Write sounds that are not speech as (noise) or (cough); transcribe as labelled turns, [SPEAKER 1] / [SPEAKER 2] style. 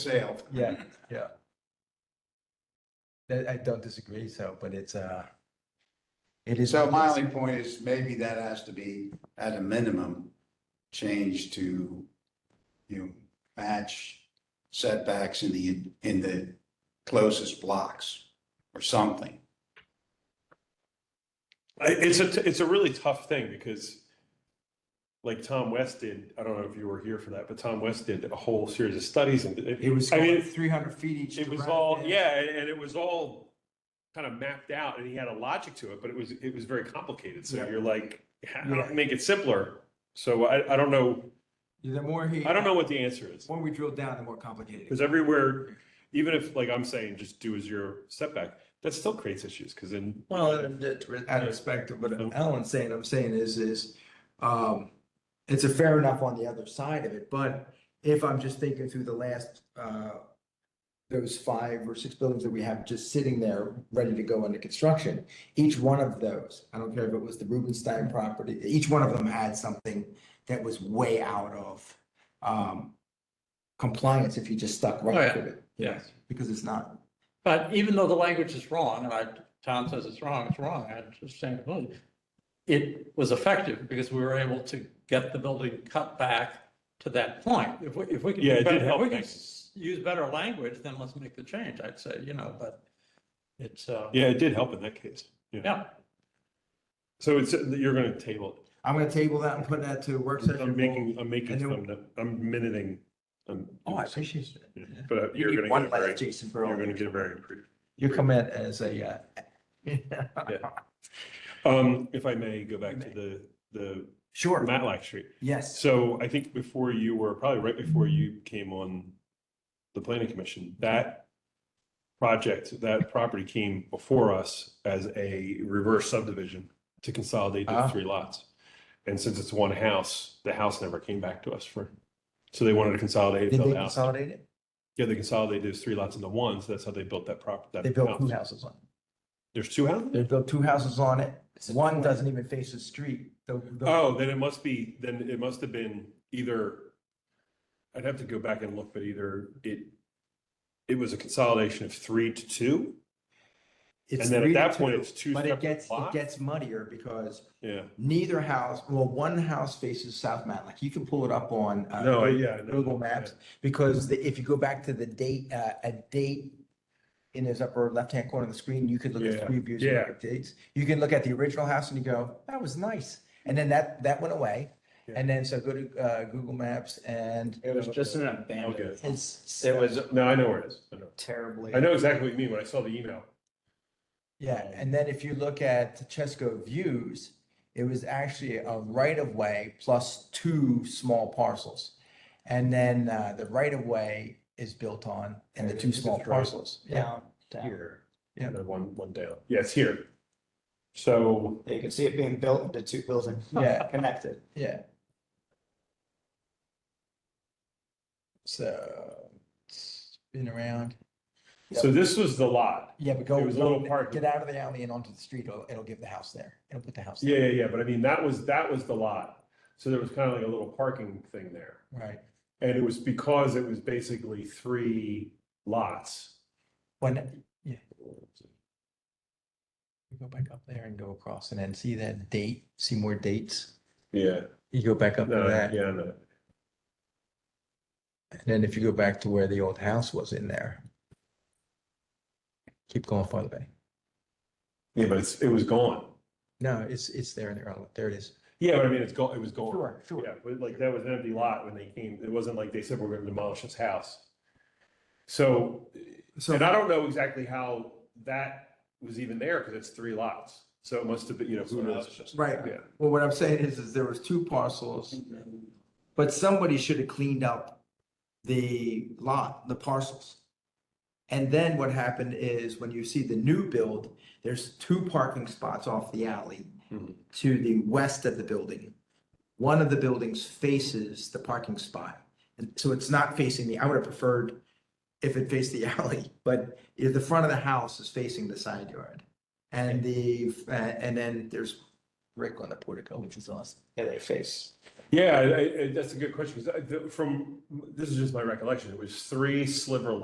[SPEAKER 1] sale.
[SPEAKER 2] Yeah, yeah. That, I don't disagree, so, but it's, uh, it is.
[SPEAKER 1] So my only point is maybe that has to be at a minimum changed to, you know, match setbacks in the, in the closest blocks or something.
[SPEAKER 3] I- It's a, t- it's a really tough thing because like Tom West did, I don't know if you were here for that, but Tom West did a whole series of studies and it,
[SPEAKER 2] It was
[SPEAKER 3] I mean,
[SPEAKER 2] three hundred feet each.
[SPEAKER 3] it was
[SPEAKER 2] direction.
[SPEAKER 3] all, yeah, and and it was all kind of mapped out and he had a logic to it, but it was, it was very complicated. So
[SPEAKER 2] Yeah.
[SPEAKER 3] you're like, how do I
[SPEAKER 2] Yeah.
[SPEAKER 3] make it simpler? So I, I don't know,
[SPEAKER 2] The more he.
[SPEAKER 3] I don't know what the answer is.
[SPEAKER 2] When we drill down, the more complicated. it
[SPEAKER 3] Because everywhere, even if like I'm saying, just do a zero setback, that still creates issues because then
[SPEAKER 2] Well, and it- out of respect, to what
[SPEAKER 4] Mm-hmm.
[SPEAKER 2] Alan's saying, I'm saying is, is, um, it's a fair enough on the other side of it, but if I'm just thinking through the last, uh, those five or six buildings that we have just sitting there, ready to go into construction, each one of those, I don't care if it was the Rubenstein property, each one of them had something that was way out of, um, compliance if you just stuck
[SPEAKER 4] Oh,
[SPEAKER 2] right
[SPEAKER 4] yeah.
[SPEAKER 2] to it.
[SPEAKER 4] Yes.
[SPEAKER 2] Because it's not,
[SPEAKER 4] But even though the language is wrong, and I, Tom says it's wrong, it's wrong, I understand completely. It was effective because we were able to get the building cut back to that point. If we, if we can. do
[SPEAKER 3] Yeah, it did
[SPEAKER 4] better- if
[SPEAKER 3] help
[SPEAKER 4] we can
[SPEAKER 3] things.
[SPEAKER 4] s- Use better language, then let's make the change, I'd say, you know, but it's, uh,
[SPEAKER 3] yeah, it did help in that case.
[SPEAKER 4] yeah,
[SPEAKER 3] So it's, you're going to table it.
[SPEAKER 2] I'm gonna table that and put that to work session.
[SPEAKER 3] I'm making, I'm making
[SPEAKER 2] and
[SPEAKER 3] some, I'm minuting. um,
[SPEAKER 2] Oh, I appreciate it.
[SPEAKER 3] yeah, But
[SPEAKER 2] You
[SPEAKER 3] you're
[SPEAKER 2] need
[SPEAKER 3] gonna get
[SPEAKER 2] one
[SPEAKER 3] a very,
[SPEAKER 2] last Jason
[SPEAKER 3] you're gonna
[SPEAKER 2] Perron.
[SPEAKER 3] get a very improved.
[SPEAKER 2] You come in as a, uh,
[SPEAKER 3] Um, if I may go back to the, the
[SPEAKER 2] sure,
[SPEAKER 3] Matlack Street.
[SPEAKER 2] yes,
[SPEAKER 3] So I think before you were, probably right before you came on the planning commission, that project, that property came before us as a reverse subdivision to consolidate the
[SPEAKER 2] Ah.
[SPEAKER 3] three lots. And since it's one house, the house never came back to us for, so they wanted to consolidate.
[SPEAKER 2] did
[SPEAKER 3] build
[SPEAKER 2] they
[SPEAKER 3] the house.
[SPEAKER 2] consolidate it?
[SPEAKER 3] Yeah, they consolidated those three lots into one, so that's how they built that prop. that
[SPEAKER 2] They built two
[SPEAKER 3] house.
[SPEAKER 2] houses on it.
[SPEAKER 3] There's two houses?
[SPEAKER 2] They built two houses on it. One doesn't even face the street. The- the-
[SPEAKER 3] Oh, then it must be, then it must have been either, I'd have to go back and look, but either it, it was a consolidation of three to two,
[SPEAKER 2] it's
[SPEAKER 3] and then
[SPEAKER 2] three
[SPEAKER 3] at
[SPEAKER 2] to
[SPEAKER 3] that point,
[SPEAKER 2] two,
[SPEAKER 3] it's two
[SPEAKER 2] But it
[SPEAKER 3] separate
[SPEAKER 2] gets, it
[SPEAKER 3] lots?
[SPEAKER 2] gets muddier because
[SPEAKER 3] yeah.
[SPEAKER 2] neither house, well, one house faces South Matlock. You can pull it up on. uh,
[SPEAKER 3] No, I- yeah. I know.
[SPEAKER 2] Google Maps, because the- if you go back to the date, uh, a date in this upper left-hand corner of the screen, you could look at
[SPEAKER 3] Yeah,
[SPEAKER 2] three views and look
[SPEAKER 3] yeah.
[SPEAKER 2] at dates. You can look at the original house and you go, that was nice. And then that, that went away.
[SPEAKER 3] Yeah.
[SPEAKER 2] And then so go to, uh, Google Maps and
[SPEAKER 5] It was just an
[SPEAKER 3] Okay.
[SPEAKER 5] abandoned,
[SPEAKER 2] it's,
[SPEAKER 5] it was
[SPEAKER 3] No, I know where it is. I know.
[SPEAKER 5] terribly.
[SPEAKER 3] I know exactly what you mean when I saw the email.
[SPEAKER 2] yeah. And then if you look at Chesco Views, it was actually a right-of-way plus two small parcels. And then, uh, the right-of-way is built on and the two small
[SPEAKER 3] It's right.
[SPEAKER 2] parcels. Yeah.
[SPEAKER 5] down.
[SPEAKER 3] Here.
[SPEAKER 2] Yeah.
[SPEAKER 3] And then one, one down. Yeah, it's here. So,
[SPEAKER 5] You can see it being built into two buildings.
[SPEAKER 2] Yeah.
[SPEAKER 5] (laughs) Connected.
[SPEAKER 2] Yeah. So, it's been around.
[SPEAKER 3] so this was the lot.
[SPEAKER 2] Yeah, but go.
[SPEAKER 3] There was a little
[SPEAKER 2] go-
[SPEAKER 3] park.
[SPEAKER 2] Get out of the alley and onto the street, it'll, it'll give the house there. It'll put the house.
[SPEAKER 3] Yeah, yeah, yeah, but I mean, that was, that was the lot. So there was kind of like a little parking thing there.
[SPEAKER 2] there. Right.
[SPEAKER 3] And it was because it was basically three lots.
[SPEAKER 2] When, yeah. You Go back up there and go across and then see that date, see more dates.
[SPEAKER 3] Yeah.
[SPEAKER 2] You go back up to
[SPEAKER 3] No,
[SPEAKER 2] that.
[SPEAKER 3] Uh, yeah, no.
[SPEAKER 2] And then if you go back to where the old house was in there. Keep going farther back.
[SPEAKER 3] Yeah, but it's, it was gone.
[SPEAKER 2] No, it's, it's there in the, early- there it is.
[SPEAKER 3] Yeah, but I mean, it's gone, it was gone.
[SPEAKER 2] Sure, sure.
[SPEAKER 3] Yeah, but like that was an empty lot when they came. It wasn't like they said, we're gonna demolish this house. So,
[SPEAKER 2] So
[SPEAKER 3] and I don't know exactly how that was even there because it's three lots. So it must have been, you know, who knows?
[SPEAKER 2] Right.
[SPEAKER 3] Yeah.
[SPEAKER 2] Well, what I'm saying is, is there was two parcels, but somebody should have cleaned up the lot, the parcels. And then what happened is when you see the new build, there's two parking spots off the alley
[SPEAKER 3] Mhm.
[SPEAKER 2] to the west of the building. One of the buildings faces the parking spot. And so it's not facing me. I would have preferred if it faced the (laughs) alley, but if the front of the house is facing the side yard. And the, uh, and then there's brick on the portico, which is awesome.
[SPEAKER 5] Yeah, they face
[SPEAKER 3] Yeah, I, I, that's a good question, because from, this is just my recollection, it was three sliver